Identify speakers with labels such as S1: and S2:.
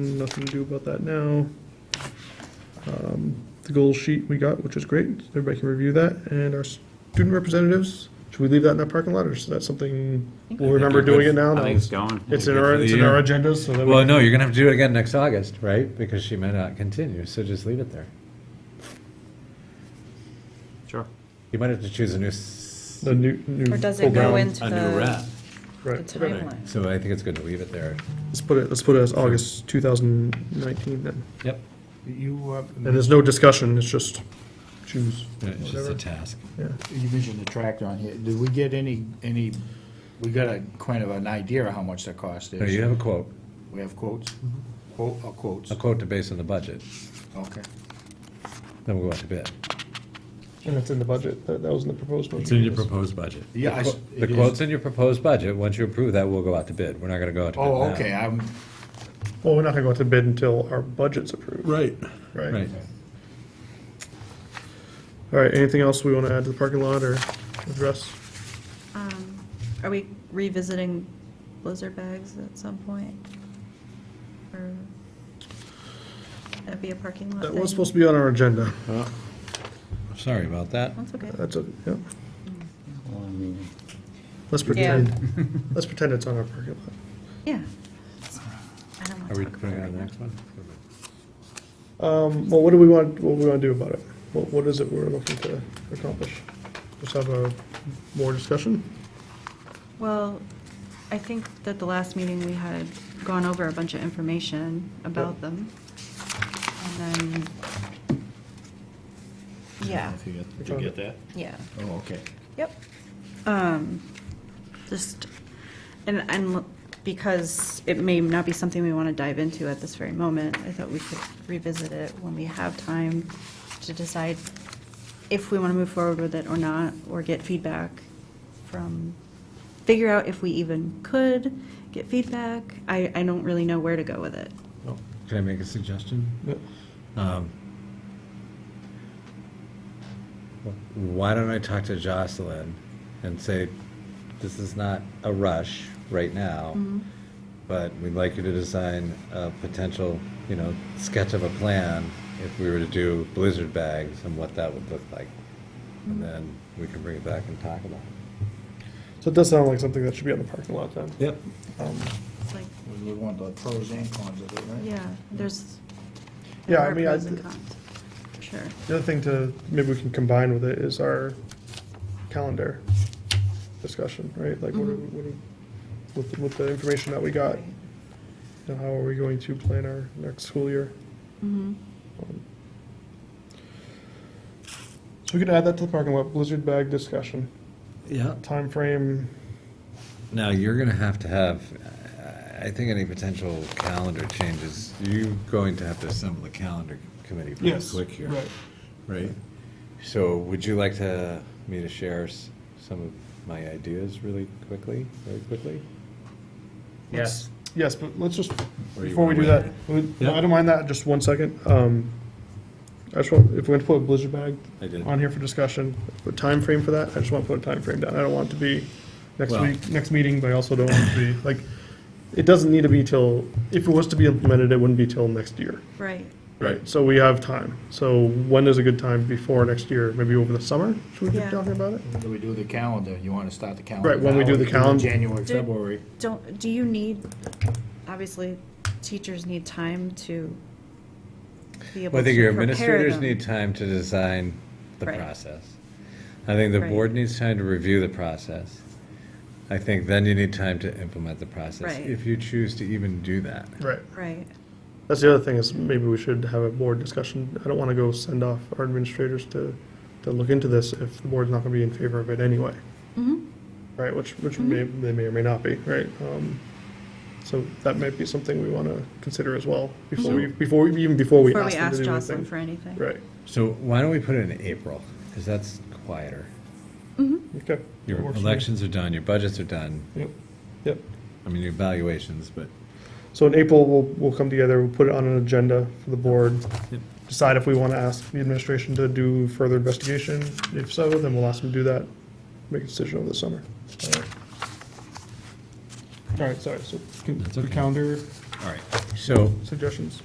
S1: Nothing to do about that now. Um, The goal sheet we got, which is great, everybody can review that, and our student representatives, should we leave that in our parking lot, or is that something we'll remember doing it now?
S2: I think it's going.
S1: It's in our, it's in our agendas, so that
S3: Well,
S1: we,
S3: no, you're gonna have to do it again next August, right? Because she may not continue, so just leave it there.
S2: Sure.
S3: You might have to choose a new, s-
S1: the new, new.
S4: Or does
S1: full
S4: it go
S1: ground.
S4: into
S2: A new rep.
S4: the the
S1: Right,
S4: timeline?
S3: so I think it's good to leave it there.
S1: let's put it, let's put it as August 2019 then,
S3: Yep.
S5: You, uh,
S1: and there's no discussion, it's just choose.
S3: Uh, It's just
S1: Whatever.
S3: a task.
S5: you mentioned the tractor on here. Did we get any, any, we got a kind of an idea of how much that cost
S3: No, you
S5: is?
S3: have a quote,
S5: We have quotes?
S4: Mm-hmm.
S5: Quote, or quotes?
S3: a quote to base on the budget,
S5: Okay.
S3: then we'll go out to bid.
S1: And it's in the budget, that, that was in the proposed budget.
S3: It's in your proposed budget.
S5: Yeah, I s-
S3: The
S5: it is-
S3: quote's in your proposed budget, once you approve that, we'll go out to bid, we're not gonna go out to bid now.
S5: Oh, okay, I'm,
S1: Well, we're not gonna go out to bid until our budget's approved,
S6: Right.
S1: right?
S3: Right,
S1: All right, anything else we wanna add to the parking lot or address?
S4: Um, Are we revisiting blizzard bags at some point? Or that'd be a parking lot
S1: That was
S4: thing?
S1: supposed to be on our agenda. Uh,
S3: sorry about that.
S4: That's okay.
S1: That's a, yeah. Let's pretend, let's pretend it's on our parking lot.
S4: Yeah. I don't want
S3: Are
S4: to
S3: we
S4: talk about
S3: putting
S4: it
S3: it
S4: right
S3: on the
S4: now.
S3: next one?
S1: Um, well, what do we want, what do we wanna do about it? What, what is it we're looking to accomplish? Just have a, more discussion?
S4: Well, I think that the last meeting, we had gone over a bunch of information about them. And then, yeah,
S5: if you get-
S1: Did you get
S5: that?
S4: yeah.
S5: Oh, okay.
S4: Yep. Um, just, and, and because it may not be something we want to dive into at this very moment, I thought we could revisit it when we have time to decide if we want to move forward with it or not, or get feedback from, figure out if we even could get feedback. I, I don't really know where to go with it.
S3: Can I make a suggestion?
S1: Yep.
S3: Um, Why don't I talk to Jocelyn and say, this is not a rush right now,
S4: Mm-hmm.
S3: but we'd like you to design a potential, you know, sketch of a plan if we were to do blizzard bags and what that would look like. And then we can bring it back and talk about it.
S1: So it does sound like something that should be on the parking lot then.
S3: Yep.
S1: Um,
S4: It's like,
S5: We want the pros and cons of it, right?
S4: yeah, there's,
S1: Yeah,
S4: there
S1: I
S4: are
S1: mean, I-
S4: pros and cons, for sure.
S1: The other thing to, maybe we can combine with it is our calendar discussion, right? Like, what, are- what, are- with, with the information that we got, you know, how are we going to plan our next school year? Um,
S4: Mm-hmm.
S1: So we could add that to the parking lot, blizzard bag discussion,
S3: Yeah.
S1: Time frame.
S3: Now, you're gonna have to have, I think any potential calendar changes, you're going to have to assemble the calendar committee pretty quick here. Right? So would you like to, me to share s- some of my ideas really quickly, very quickly?
S2: Yes.
S1: Yes, but let's just,
S3: Or you
S1: before we
S3: wanna
S1: do
S3: wait?
S1: that, we-
S3: Yeah.
S1: I don't mind that, just one second. Um, I just want, if we're gonna put a blizzard bag
S3: I did.
S1: on here for discussion, put time frame for that, I just want to put a time frame down, I don't want it to be next
S3: Well-
S1: week, next meeting, but I also don't want it to be, like, it doesn't need to be till, if it was to be implemented, it wouldn't be till next year.
S4: Right.
S1: Right. So we have time, so when is a good time before next year, maybe over the summer, should we
S4: Yeah.
S1: be talking about it?
S5: When do we do the calendar? You want to start the calendar?
S1: Right, when we
S5: now
S1: do
S5: or
S1: the
S5: it
S1: calend-
S5: January,
S4: Do-
S5: February.
S4: Don't, do you need, obviously, teachers need time to be able to prepare them.
S3: Well, I think your administrators need time to design the
S4: Right.
S3: process. I think the
S4: Right.
S3: board needs time to review the process. I think then you need time to implement the process,
S4: Right.
S3: if you choose to even do that.
S1: Right.
S4: Right,
S1: That's the other thing, is maybe we should have a board discussion, I don't want to go send off our administrators to, to look into this if the board's not gonna be in favor of it anyway.
S4: Mhm.
S1: Right, which, which may,
S4: Mm-hmm.
S1: they may or may not be, right? Um, So that might be something we want to consider as well, before we, before, we- even before we
S4: Mm-hmm.
S1: ask
S4: before we
S1: them to
S4: ask
S1: do
S4: Jocelyn
S1: anything.
S4: for anything.
S1: Right,
S3: So why don't we put it in April, because that's quieter.
S1: okay.
S3: Your
S1: Works for me.
S3: elections are done, your budgets are done,
S1: Yep, yep.
S3: I mean, your evaluations, but
S1: So in April, we'll, we'll come together, we'll put it on an agenda for the board,
S3: Yep.
S1: decide if we want to ask the administration to do further investigation. If so, then we'll ask them to do that, make a decision over the summer. All right. All right, sorry, so can-
S3: That's
S1: the
S3: okay.
S1: calendar
S3: All right, so
S1: suggestions?